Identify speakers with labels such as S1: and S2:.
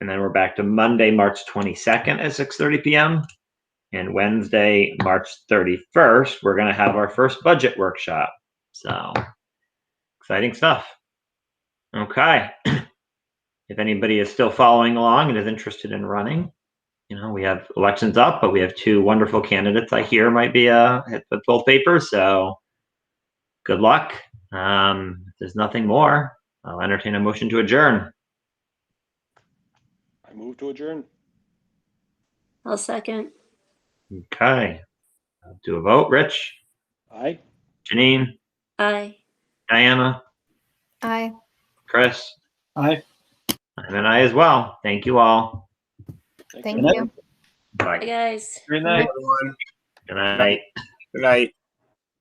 S1: And then we're back to Monday, March 22nd at 6:30 p.m. And Wednesday, March 31st, we're going to have our first budget workshop. So exciting stuff. Okay. if anybody is still following along and is interested in running, you know, we have elections up, but we have two wonderful candidates I hear might be uh, hit with both papers. So good luck. Um, if there's nothing more, I'll entertain a motion to adjourn.
S2: I move to adjourn.
S3: I'll second.
S1: Okay. I'll do a vote. Rich,
S2: Aye.
S1: Janine,
S3: Aye.
S1: Diana,
S4: Aye.
S1: Chris.
S5: Aye.
S1: I'm an I as well. Thank you all.
S4: Thank
S5: you.
S4: you.
S1: Bye.
S3: Hi, guys.
S5: Good night.
S1: Good night.
S5: Good night.